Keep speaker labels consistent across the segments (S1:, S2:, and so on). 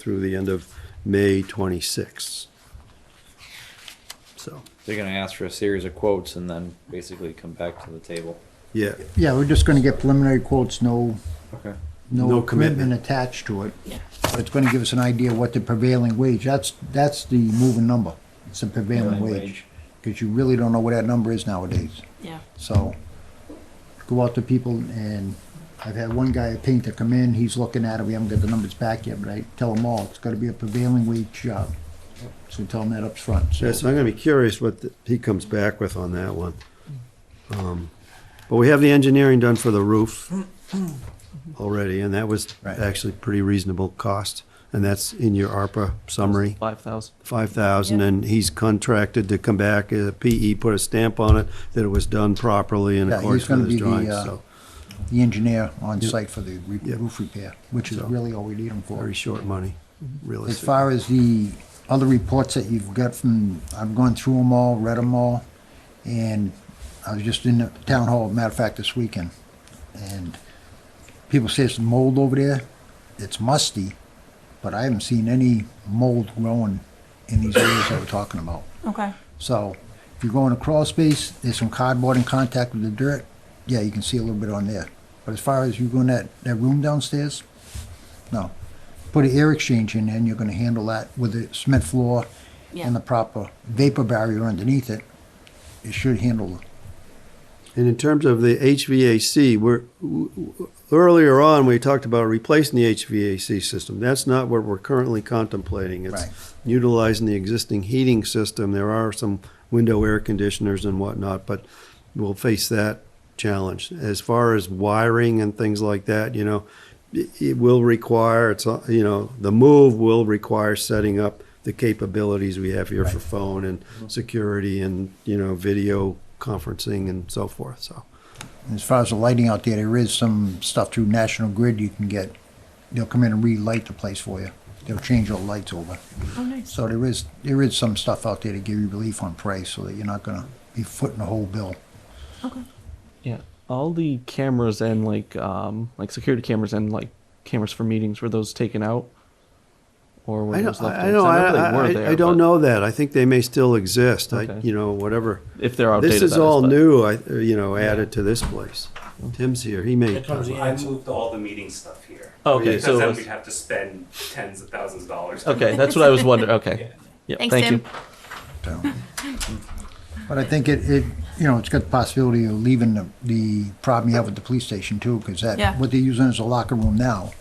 S1: through the end of May 26th. So,
S2: They're gonna ask for a series of quotes and then basically come back to the table.
S1: yeah,
S3: Yeah, we're just gonna get preliminary quotes, no,
S2: Okay.
S1: No
S3: no
S1: commitment.
S3: commitment attached to it. But it's gonna give us an idea what the prevailing wage, that's, that's the moving number. It's the prevailing
S2: Prevailing
S3: wage.
S2: wage.
S3: Because you really don't know what that number is nowadays.
S4: Yeah.
S3: So go out to people and I've had one guy, a painter, come in, he's looking at it, we haven't got the numbers back yet, but I tell him all, it's gotta be a prevailing wage job. So we tell him that up front. so.
S1: Yeah, so I'm gonna be curious what the- he comes back with on that one. Um, But we have the engineering done for the roof already, and that was
S3: Right.
S1: actually pretty reasonable cost. And that's in your ARPA summary.
S5: Five thousand.
S1: five thousand, and he's contracted to come back, uh, PE put a stamp on it, that it was done properly in
S3: Yeah, he's
S1: accordance
S3: gonna
S1: with his
S3: be the,
S1: drawings,
S3: uh,
S1: so,
S3: The engineer on site for the re-
S1: Yeah.
S3: roof repair, which is
S1: So.
S3: really all we need him for.
S1: very short money,
S3: As
S1: realistic.
S3: far as the other reports that you've got from, I've gone through them all, read them all, and I was just in the town hall, matter of fact, this weekend, and people say it's mold over there. It's musty, but I haven't seen any mold growing in these areas that we're talking about.
S4: Okay.
S3: So if you go in a crawl space, there's some cardboard in contact with the dirt, yeah, you can see a little bit on there. But as far as you go in that, that room downstairs, no. Put an air exchange in there and you're gonna handle that with the cement floor
S4: Yeah.
S3: and uh, the proper vapor barrier underneath it. It should handle it.
S1: And in terms of the HVAC, we're, w- w- earlier on, we talked about replacing the HVAC system, that's not what we're currently contemplating. It's
S3: Right.
S1: Utilizing the existing heating system, there are some window air conditioners and whatnot, but we'll face that challenge. As far as wiring and things like that, you know, it it will require, it's, uh, you know, the move will require setting up the capabilities we have here for phone and security and, you know, video conferencing and so forth, so.
S3: And as far as the lighting out there, there is some stuff through National Grid you can get. They'll come in and relight the place for you. They'll change all the lights over.
S4: Oh, nice.
S3: So there is, there is some stuff out there to give you relief on price so that you're not gonna be footing the whole bill.
S4: Okay.
S5: Yeah, all the cameras and like um like security cameras and like cameras for meetings were those taken out, or were
S1: I
S5: those
S1: don't,
S5: left?
S1: I, I
S5: in?
S1: don't,
S5: 'Cause
S1: I,
S5: remember they were
S1: I-
S5: there,
S1: I don't
S5: but
S1: know that. I think they may still exist. I,
S5: Okay.
S1: you know, whatever.
S5: if they're outdated.
S1: This is
S5: that
S1: all
S5: but-
S1: new, I, you know, added to this place. Tim's here. He may.
S6: I moved all the meeting stuff here.
S5: Oh, okay,
S6: Because
S5: so
S6: then
S5: it's-
S6: we'd have to spend tens of thousands of dollars.
S5: Okay, that's what I was wondering. Okay, yeah,
S4: Thanks,
S5: thank
S4: Tim.
S5: you.
S3: So, But I think it, it, you know, it's got the possibility of leaving the, the problem you have with the police station too, because
S4: Yeah.
S3: that, what they're using as a locker room now,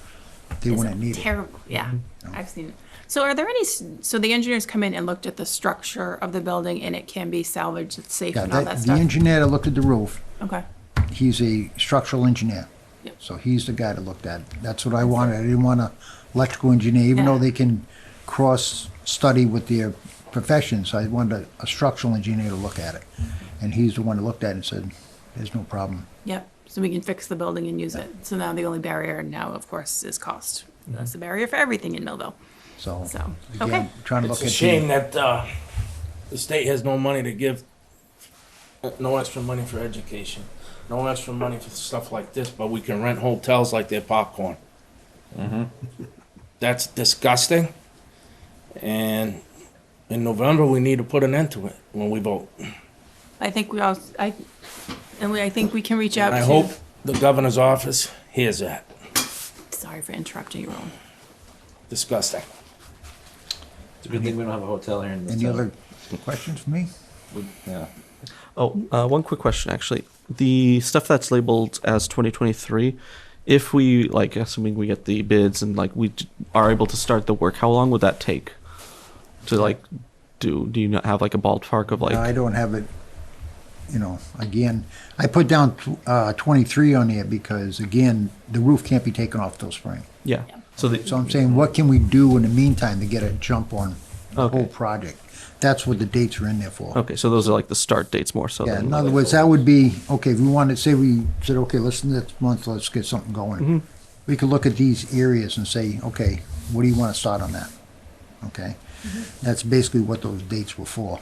S3: they
S4: It's
S3: wouldn't need it. Mm-hmm.
S4: terrible. Yeah. I've seen it. So are there any, s- so the engineers come in and looked at the structure of the building and it can be salvaged, it's safe
S3: Yeah,
S4: and all
S3: that-
S4: that
S3: the
S4: stuff?
S3: engineer that looked at the roof,
S4: Okay.
S3: he's a structural engineer.
S4: Yep.
S3: So he's the guy that looked at it. That's what I wanted. I didn't want a electrical engineer, even though
S4: Yeah.
S3: they can cross-study with their professions. I wanted a- a structural engineer to look at it. And he's the one that looked at it and said, there's no problem.
S4: Yep. So we can fix the building and use it. So now the only barrier now, of course, is cost. That's the barrier for everything in Millville.
S3: So,
S4: So, okay.
S3: Mm-hmm. again, trying to look
S7: It's
S3: at the.
S7: a shame that uh, the state has no money to give, uh, no extra money for education, no extra money for stuff like this, but we can rent hotels like they're popcorn. That's disgusting. And in November, we need to put an end to it when we vote.
S4: I think we all, I, and we, I think we can reach out
S7: And
S4: to.
S7: I hope the governor's office hears that.
S4: Sorry for interrupting you, Roland.
S7: Disgusting.
S2: It's a good thing we don't have a hotel here in this
S3: Any other
S2: town.
S3: questions for me?
S2: We- Yeah.
S5: Oh, uh, one quick question actually. The stuff that's labeled as 2023, if we like, assuming we get the bids and like we d- are able to start the work, how long would that take? To like, do do you not have like a ballpark of like?
S3: I don't have it, you know, again, I put down uh, 23 on there because, again, the roof can't be taken off till spring.
S5: yeah. So the
S3: So I'm saying, what can we do in the meantime to get a jump on the
S5: Okay.
S3: whole project? That's what the dates are in there for.
S5: Okay, so those are like the start dates more so.
S3: Yeah,
S5: than
S3: in other words, that would be, okay, if we wanted, say we said, okay, listen, next month, let's get something going.
S5: Mm-hmm.
S3: We could look at these areas and say, okay, what do you want to start on that? Okay? That's basically what those dates were for.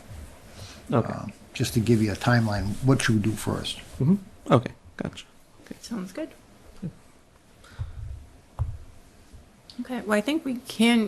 S5: okay,
S3: um, just to give you a timeline, what should we do first?
S5: okay, gotcha.
S4: Sounds good. Okay, well, I think we can